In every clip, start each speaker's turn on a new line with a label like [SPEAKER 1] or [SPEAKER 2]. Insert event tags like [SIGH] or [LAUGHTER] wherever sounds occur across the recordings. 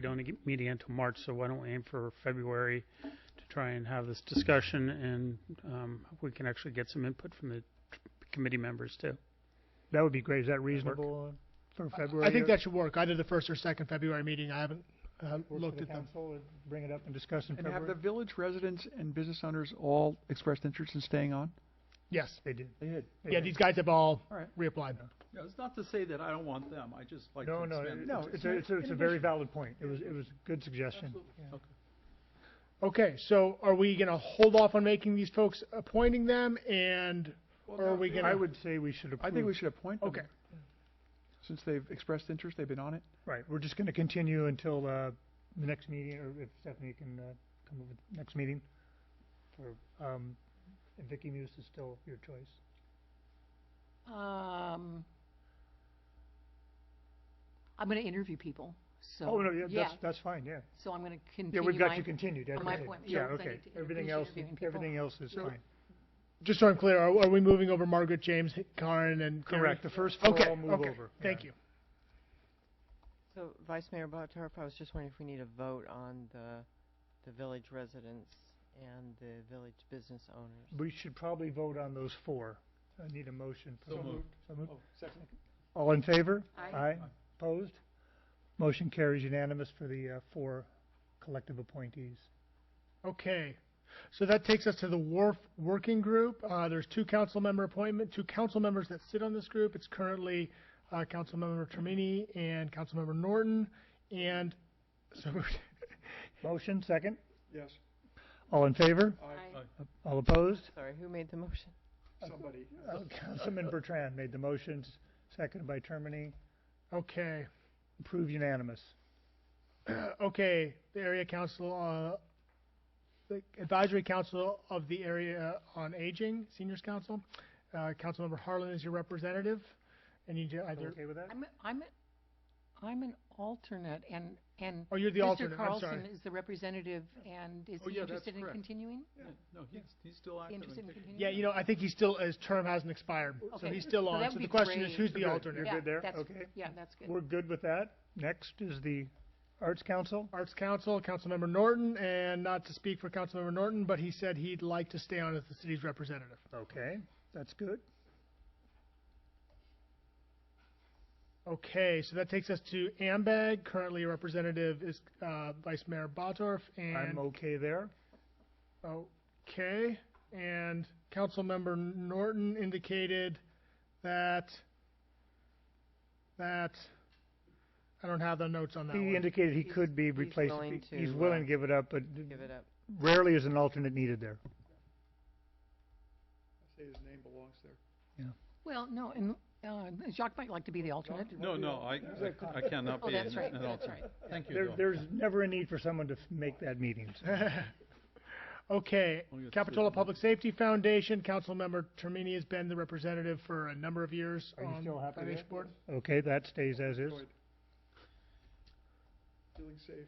[SPEAKER 1] We don't ag- meet again until March, so why don't we aim for February to try and have this discussion and um, we can actually get some input from the committee members too.
[SPEAKER 2] That would be great. Is that
[SPEAKER 1] work?
[SPEAKER 2] reasonable uh, for
[SPEAKER 3] I-
[SPEAKER 2] February?
[SPEAKER 3] I think
[SPEAKER 2] or-
[SPEAKER 3] that should work, either the first or second February meeting, I haven't, uh,
[SPEAKER 2] Work for
[SPEAKER 3] looked
[SPEAKER 2] the
[SPEAKER 3] at them.
[SPEAKER 2] council, and Bring it up and discuss in
[SPEAKER 4] And have the
[SPEAKER 2] February?
[SPEAKER 4] village residents and business owners all expressed interest in staying on?
[SPEAKER 3] Yes,
[SPEAKER 2] They did.
[SPEAKER 4] They did.
[SPEAKER 2] They
[SPEAKER 3] yeah,
[SPEAKER 2] did.
[SPEAKER 3] these guys have all
[SPEAKER 4] All right.
[SPEAKER 3] reapplied.
[SPEAKER 5] Yeah, it's not to say that I don't want them, I just like to
[SPEAKER 2] No, no,
[SPEAKER 5] expand.
[SPEAKER 2] it-
[SPEAKER 5] the
[SPEAKER 2] no,
[SPEAKER 5] dis-
[SPEAKER 2] it's a, it's a, it's a
[SPEAKER 4] in
[SPEAKER 2] very
[SPEAKER 4] addition-
[SPEAKER 2] valid point. It was, it was a good suggestion.
[SPEAKER 5] Absolutely. Okay.
[SPEAKER 3] Okay, so are we gonna hold off on making these folks, appointing them, and,
[SPEAKER 5] Well,
[SPEAKER 3] or
[SPEAKER 5] no,
[SPEAKER 3] are we
[SPEAKER 5] I-
[SPEAKER 3] gonna?
[SPEAKER 2] I would say we should approve.
[SPEAKER 4] I think we should appoint them.
[SPEAKER 3] Okay.
[SPEAKER 4] Since they've expressed interest, they've been on it.
[SPEAKER 2] Right, we're just gonna continue until, uh, the next meeting, or if Stephanie can, uh, come over the next meeting. For, um, and Vicky Muse is still your choice.
[SPEAKER 6] Um, I'm going to interview people, so.
[SPEAKER 2] Oh, no, yeah, that's, that's fine, yeah.
[SPEAKER 6] So I'm going to
[SPEAKER 2] Yeah,
[SPEAKER 6] continue
[SPEAKER 2] we've got
[SPEAKER 6] my,
[SPEAKER 2] you continued, that's
[SPEAKER 6] on my
[SPEAKER 2] okay.
[SPEAKER 6] appointment.
[SPEAKER 2] Yeah,
[SPEAKER 6] Yeah, 'cause I
[SPEAKER 2] okay.
[SPEAKER 6] need to
[SPEAKER 2] Everything
[SPEAKER 6] introduce
[SPEAKER 2] else,
[SPEAKER 6] interviewing people.
[SPEAKER 2] everything else is
[SPEAKER 4] So-
[SPEAKER 2] fine.
[SPEAKER 3] just so I'm clear, are, are we moving over Margaret, James, Karen, and Carrie?
[SPEAKER 2] Correct, the first four
[SPEAKER 3] Okay,
[SPEAKER 2] all move
[SPEAKER 3] okay.
[SPEAKER 2] over.
[SPEAKER 3] Thank you.
[SPEAKER 7] So Vice Mayor Botorff, I was just wondering if we need a vote on the, the village residents and the village business owners.
[SPEAKER 2] We should probably vote on those four. I need a motion. for-
[SPEAKER 5] So moved.
[SPEAKER 2] So moved.
[SPEAKER 5] Oh, second.
[SPEAKER 2] All in favor?
[SPEAKER 6] Aye.
[SPEAKER 2] Opposed? Motion carries unanimous for the, uh, four collective appointees.
[SPEAKER 3] Okay, so that takes us to the WARF Working Group. Uh, there's two council member appointment, two council members that sit on this group. It's currently, uh, council member Termini and council member Norton. And so,
[SPEAKER 2] Motion, second.
[SPEAKER 4] Yes.
[SPEAKER 2] All in favor?
[SPEAKER 6] Aye.
[SPEAKER 2] All opposed?
[SPEAKER 7] Sorry, who made the motion?
[SPEAKER 4] Somebody.
[SPEAKER 2] Uh, Councilman Bertrand made the motions, seconded by Termini.
[SPEAKER 3] okay,
[SPEAKER 2] Approved unanimous.
[SPEAKER 3] [CLEARS THROAT] okay, the area council, uh, the advisory council of the area on aging, seniors council. Uh, council member Harlan is your representative. And you do
[SPEAKER 2] Everyone
[SPEAKER 3] either,
[SPEAKER 2] okay with that?
[SPEAKER 6] I'm, I'm, I'm an alternate and, and.
[SPEAKER 3] oh, you're the alternate,
[SPEAKER 6] Mr.
[SPEAKER 3] I'm
[SPEAKER 6] Carlson
[SPEAKER 3] sorry.
[SPEAKER 6] is the representative and is
[SPEAKER 5] Oh,
[SPEAKER 6] he
[SPEAKER 5] yeah, that's
[SPEAKER 6] interested in
[SPEAKER 5] correct.
[SPEAKER 6] continuing?
[SPEAKER 5] Yeah, no, he's, he's still active.
[SPEAKER 6] He interested in
[SPEAKER 5] and kicking.
[SPEAKER 6] continuing?
[SPEAKER 3] Yeah, you know, I think he's still, his term hasn't expired, so
[SPEAKER 6] Okay,
[SPEAKER 3] he's still
[SPEAKER 6] so that
[SPEAKER 3] on.
[SPEAKER 6] would
[SPEAKER 3] So
[SPEAKER 6] be
[SPEAKER 3] the question is,
[SPEAKER 6] great.
[SPEAKER 3] who's the
[SPEAKER 2] Good.
[SPEAKER 3] alternate?
[SPEAKER 2] You're
[SPEAKER 6] Yeah,
[SPEAKER 2] good there?
[SPEAKER 6] that's-
[SPEAKER 2] Okay.
[SPEAKER 6] Yeah, that's good.
[SPEAKER 2] We're good with that. Next is the Arts Council.
[SPEAKER 3] Arts Council, Councilmember Norton, and not to speak for Councilmember Norton, but he said he'd like to stay on as the city's representative.
[SPEAKER 2] Okay, that's good.
[SPEAKER 3] Okay, so that takes us to AMBAG. Currently, a representative is uh, Vice Mayor Botorff and
[SPEAKER 2] I'm okay there.
[SPEAKER 3] okay, and Councilmember Norton indicated that that I don't have the notes on that
[SPEAKER 2] He
[SPEAKER 3] one.
[SPEAKER 2] indicated he
[SPEAKER 7] He's-
[SPEAKER 2] could be
[SPEAKER 7] he's
[SPEAKER 2] replaced.
[SPEAKER 7] willing
[SPEAKER 2] He- He's
[SPEAKER 7] to,
[SPEAKER 2] willing
[SPEAKER 7] uh,
[SPEAKER 2] to give it up, but
[SPEAKER 7] Give it up.
[SPEAKER 2] rarely is an alternate needed there.
[SPEAKER 4] Say his name belongs there.
[SPEAKER 6] Well, no, and, uh, Jacques might like to be the alternate.
[SPEAKER 5] No, no, I, I- I cannot
[SPEAKER 6] Oh,
[SPEAKER 5] be.
[SPEAKER 6] that's
[SPEAKER 5] an-
[SPEAKER 6] right,
[SPEAKER 5] an
[SPEAKER 6] that's
[SPEAKER 5] alternate.
[SPEAKER 6] right.
[SPEAKER 5] Thank you,
[SPEAKER 2] There,
[SPEAKER 5] Bill.
[SPEAKER 2] there's never a need for someone to f- make that
[SPEAKER 3] [LAUGHS]
[SPEAKER 2] meeting. so.
[SPEAKER 3] Okay,
[SPEAKER 5] Only got
[SPEAKER 3] Capitola
[SPEAKER 5] three.
[SPEAKER 3] Public Safety Foundation, Councilmember Termini has been the representative for a number of years
[SPEAKER 2] Are you
[SPEAKER 3] on
[SPEAKER 2] still happy
[SPEAKER 3] Foundation
[SPEAKER 2] there?
[SPEAKER 3] Board.
[SPEAKER 2] Okay, that stays as is.
[SPEAKER 4] Good. Feeling safe.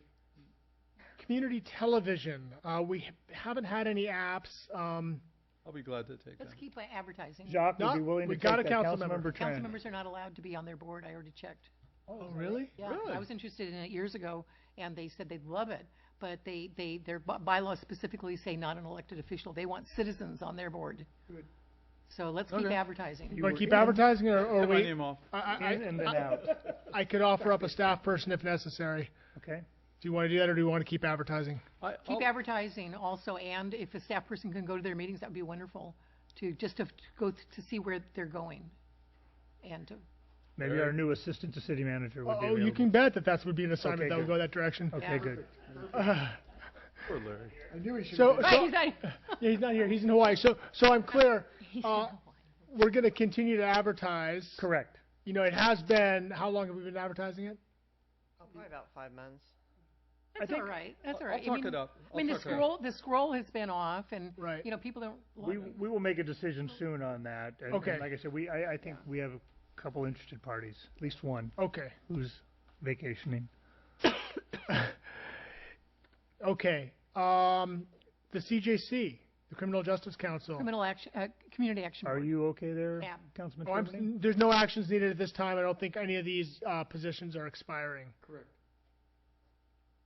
[SPEAKER 3] Community Television, uh, we ha- haven't had any apps, um,
[SPEAKER 5] I'll be glad to take that.
[SPEAKER 6] Let's keep uh, advertising.
[SPEAKER 2] Jacques would be
[SPEAKER 3] No,
[SPEAKER 2] willing to
[SPEAKER 3] we
[SPEAKER 2] take
[SPEAKER 3] got a
[SPEAKER 2] that.
[SPEAKER 3] council member.
[SPEAKER 2] Councilmember
[SPEAKER 6] Council
[SPEAKER 2] Tran.
[SPEAKER 6] members are not allowed to be on their board, I already checked.
[SPEAKER 3] Oh, really?
[SPEAKER 6] Yeah, I was interested in it years ago, and they said they'd love it, but they, they, their by- bylaws specifically say not an elected official. They want citizens on their board.
[SPEAKER 4] Good.
[SPEAKER 6] So let's keep
[SPEAKER 5] Okay.
[SPEAKER 6] advertising.
[SPEAKER 3] You wanna
[SPEAKER 2] were
[SPEAKER 3] keep
[SPEAKER 2] in.
[SPEAKER 3] advertising or, or
[SPEAKER 5] Get my
[SPEAKER 3] we,
[SPEAKER 5] name off.
[SPEAKER 3] I, I,
[SPEAKER 2] In and then
[SPEAKER 3] I-
[SPEAKER 2] out,
[SPEAKER 3] I could offer up a staff person if necessary.
[SPEAKER 2] okay?
[SPEAKER 3] Do you wanna do that or do you wanna keep advertising?
[SPEAKER 5] I-
[SPEAKER 6] Keep
[SPEAKER 3] Oh.
[SPEAKER 5] I'll-
[SPEAKER 6] advertising also, and if a staff person can go to their meetings, that'd be wonderful, to, just to f- go th- to see where they're going. And to,
[SPEAKER 2] Maybe our new assistant to city manager would be
[SPEAKER 3] Oh,
[SPEAKER 2] available.
[SPEAKER 3] you can bet that that would be an assignment
[SPEAKER 2] Okay,
[SPEAKER 3] that would
[SPEAKER 2] good.
[SPEAKER 3] go that direction.
[SPEAKER 2] Okay,
[SPEAKER 6] Yeah.
[SPEAKER 2] good.
[SPEAKER 5] Poor Larry.
[SPEAKER 4] I knew he should.
[SPEAKER 3] So,
[SPEAKER 6] Right,
[SPEAKER 3] so,
[SPEAKER 6] he's not- [LAUGHS]
[SPEAKER 3] yeah, he's not here, he's in Hawaii, so, so I'm clear,
[SPEAKER 6] he's
[SPEAKER 3] Uh,
[SPEAKER 6] not one.
[SPEAKER 3] we're gonna continue to advertise.
[SPEAKER 2] Correct.
[SPEAKER 3] You know, it has been, how long have we been advertising it?
[SPEAKER 7] Oh, Probably about five months.
[SPEAKER 6] That's
[SPEAKER 2] think-
[SPEAKER 6] all right, that's all
[SPEAKER 5] I'll-
[SPEAKER 6] right.
[SPEAKER 5] I'll
[SPEAKER 6] I
[SPEAKER 5] talk
[SPEAKER 6] mean-
[SPEAKER 5] it up.
[SPEAKER 6] I mean, the scroll, the scroll has been off, and,
[SPEAKER 3] Right.
[SPEAKER 6] you know, people don't.
[SPEAKER 2] We,
[SPEAKER 6] love it.
[SPEAKER 2] we will make a decision soon on that. and- and
[SPEAKER 3] Okay.
[SPEAKER 2] Like I said, we, I, I think we have a couple interested parties, at least one,
[SPEAKER 3] Okay,
[SPEAKER 2] who's vacationing.
[SPEAKER 3] okay. Um, the CJC, the Criminal Justice Council.
[SPEAKER 6] Criminal action, uh, community action.
[SPEAKER 2] Are
[SPEAKER 6] Board.
[SPEAKER 2] you okay there,
[SPEAKER 6] Yeah.
[SPEAKER 2] Councilman
[SPEAKER 3] Oh, I'm-
[SPEAKER 2] Tremaine?
[SPEAKER 3] there's no actions needed at this time. I don't think any of these, uh, positions are expiring.
[SPEAKER 4] Correct.